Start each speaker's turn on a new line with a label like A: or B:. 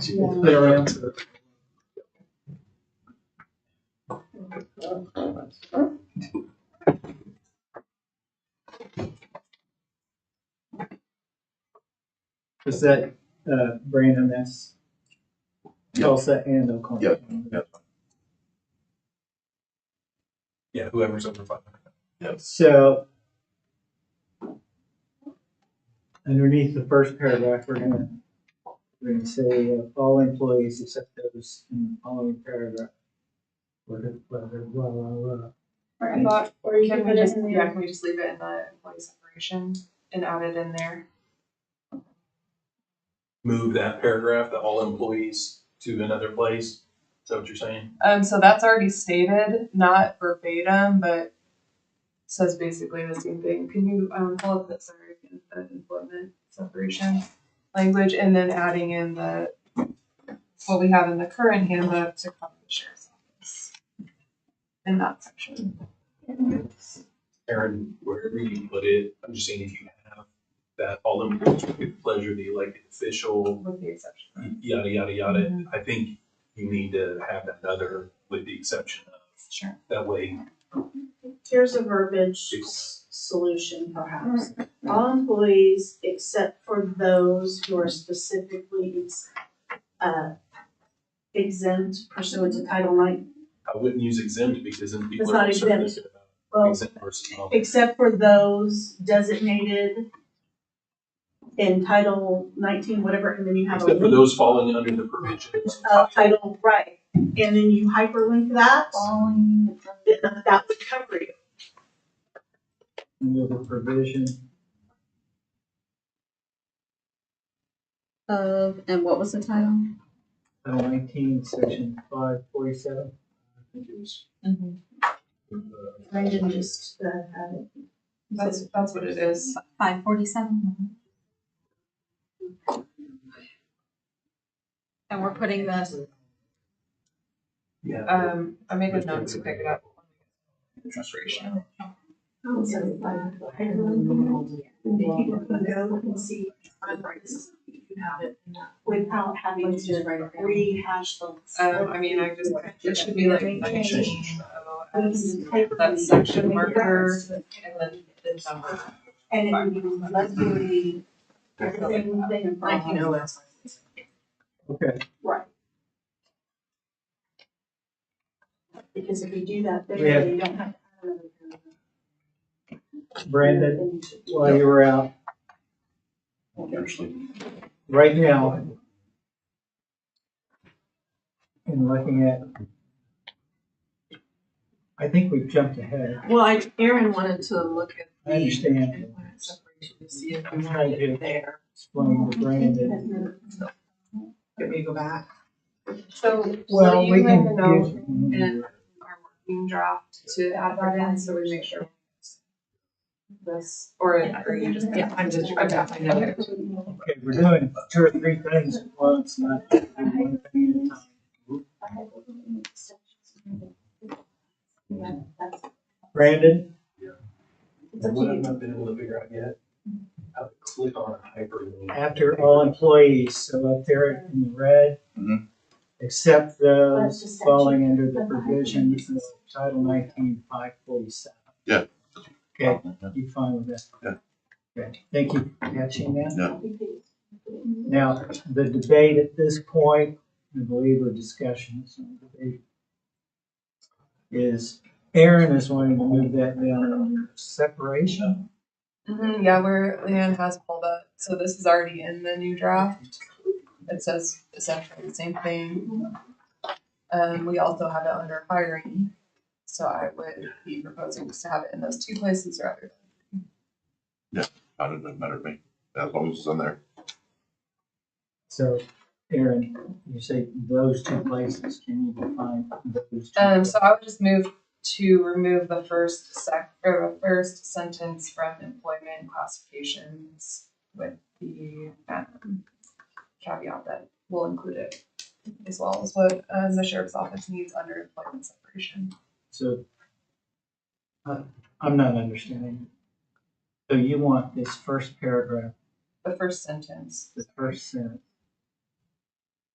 A: It's there up to-
B: Is that, uh, Brandon, that's Tulsa and Oklahoma?
C: Yep.
A: Yeah, whoever's over five hundred.
B: So underneath the first paragraph, we're gonna, we're gonna say uh, all employees except those in the following paragraph. Whether, whether, blah, blah, blah.
D: Or I thought, or you can
E: Can we
D: put it
E: just,
D: in
E: yeah,
D: the,
E: can we just leave it in the employee separation and add it in there?
A: Move that paragraph, the all employees to another place. Is that what you're saying?
E: Um, so that's already stated, not verbatim, but says basically the same thing. Can you, um, pull up that, sorry, the employment separation language and then adding in the, what we have in the current handbook to cover the sheriff's office in that section.
A: Aaron, wherever you put it, I'm just saying if you have that all employees with the pleasure, of the elected official,
E: With the exception. of-
A: y- yada, yada, yada.
F: Mm-hmm.
A: I think you need to have that other with the exception of,
E: Sure.
A: that way
F: Here's a verbiage s- solution perhaps. All employees except for those who are specifically ex- uh, exempt pursuant to Title IX.
A: I wouldn't use exempt because then people
F: It's
A: are
F: not
A: concerned
F: exempt.
A: about
F: Well,
A: exempt versus not.
F: except for those designated in Title nineteen, whatever, and then you have a
A: Except for
F: link
A: those falling under the provisions.
F: of Title, right? And then you hyperlink that,
E: Following
F: then that would cover you.
B: Under the provision,
D: of, and what was the title?
B: Title nineteen, section five forty-seven.
F: Uh,
D: Mm-hmm.
F: I didn't just, uh, have it.
E: That's, that's what it is.
D: Five forty-seven. And we're putting the,
A: Yeah.
E: Um, I made a note to pick it up. Separation.
F: Oh, so, uh, I don't know. If you can go and see, I'm right, you can have it without having to rehash the.
E: Um, I mean, I just, it should be like nineteen oh S, that section marker, and then the number.
F: And it would be luxury, everything they
E: Nineteen oh S.
B: Okay,
F: Right. Because if you do that, then
B: We have-
F: you don't have.
B: Brandon, while you were out, right now, in looking at, I think we've jumped ahead.
D: well, I, Aaron wanted to look at
B: I understand.
D: employment separation to see if
B: I'm
D: we
B: trying
D: had
B: to
D: it there.
B: explain to Brandon.
D: Can we go back?
E: So, so
B: Well, we
E: you make a
B: can
E: note
B: give,
E: in our working draft to add that in, so we make sure. This, or, or you just.
D: Yeah, I'm just, I'm definitely not.
B: okay, we're doing two or three things at once, not one thing at a time. Brandon,
A: What I've not been able to figure out yet, how to click on a hyperlink.
B: after all employees, so up there in the red,
C: Mhm.
F: That's
B: except those
F: just
B: falling under the provisions of Title nineteen five forty-seven.
C: Yeah.
B: Okay, you fine with that?
C: Yeah.
B: Okay, thank you for catching that.
F: Right.
B: Now, the debate at this point, I believe, or discussion, it's not debate, is Aaron is wanting to move that down
F: Mm-hmm.
B: under separation.
E: Mhm, yeah, where Leanne has pulled up, so this is already in the new draft. It says essentially the same thing. Um, we also have it under hiring, so I would be proposing just to have it in those two places rather.
C: How does that matter to me? As long as it's on there.
B: So, Aaron, you say those two places, can you define those two?
E: Um, so I would just move to remove the first sec, or the first sentence from employment classifications with the, um, caveat that we'll include it as well as what, um, the sheriff's office needs under employment separation.
B: So, uh, I'm not understanding. So you want this first paragraph,
E: the first sentence.
B: this first sentence,